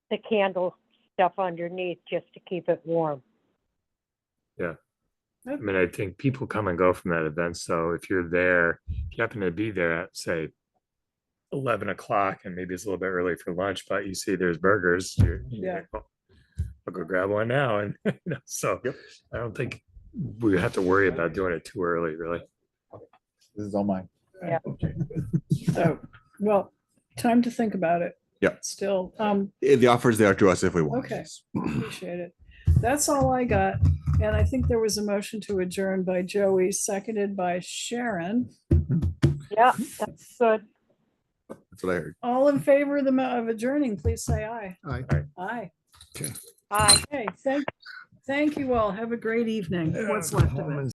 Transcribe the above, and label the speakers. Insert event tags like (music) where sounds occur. Speaker 1: the candle stuff underneath just to keep it warm.
Speaker 2: I mean, I think people come and go from that event. So if you're there, if you happen to be there at say eleven o'clock, and maybe it's a little bit early for lunch, but you see there's burgers, you're, you're
Speaker 3: Yeah.
Speaker 2: like, "Oh, I'll go grab one now. (laughs) And you know, so
Speaker 4: Yep.
Speaker 2: I don't think we have to worry about doing it too early, really.
Speaker 4: This is all mine.
Speaker 3: So, well, time to think about it.
Speaker 5: Yeah.
Speaker 3: Still, um,
Speaker 5: Eh, The offer is there to us if we want.
Speaker 3: Okay.
Speaker 5: yes.
Speaker 3: appreciate it. That's all I got. And I think there was a motion to adjourn by Joey, seconded by Sharon.
Speaker 1: Yeah, that's good.
Speaker 5: That's what I heard.
Speaker 3: All in favor of the, mo- of adjourning, please say aye.
Speaker 4: Aye.
Speaker 2: Aye.
Speaker 3: Aye.
Speaker 1: Aye.
Speaker 3: Okay, thank, thank you all. Have a great evening. What's left of it.